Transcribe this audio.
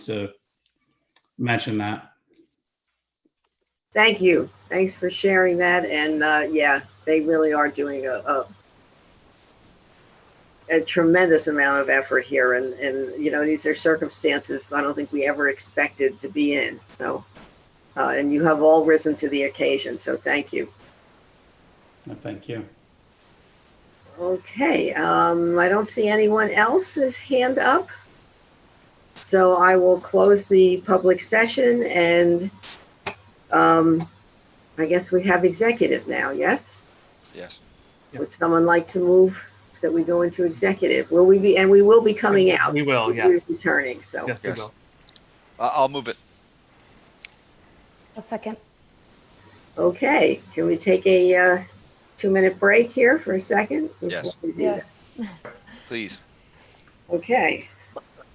to mention that. Thank you. Thanks for sharing that. And uh, yeah, they really are doing a, a a tremendous amount of effort here. And and you know these are circumstances I don't think we ever expected to be in. So uh, and you have all risen to the occasion. So thank you. Uh, Thank you. Okay, um, I don't see anyone else's hand up. So I will close the public session and, um, I guess we have executive now, yes? Yes. Would someone like to move that we go into executive? Will we be, and we will be coming out. We will, We're Oh, yes. Returning, so. Yes, we Yes. will. I- I'll move it. A second. Okay, can we take a, uh, two-minute break here for a second? Yes. Before we do that? Yes. Please. Okay,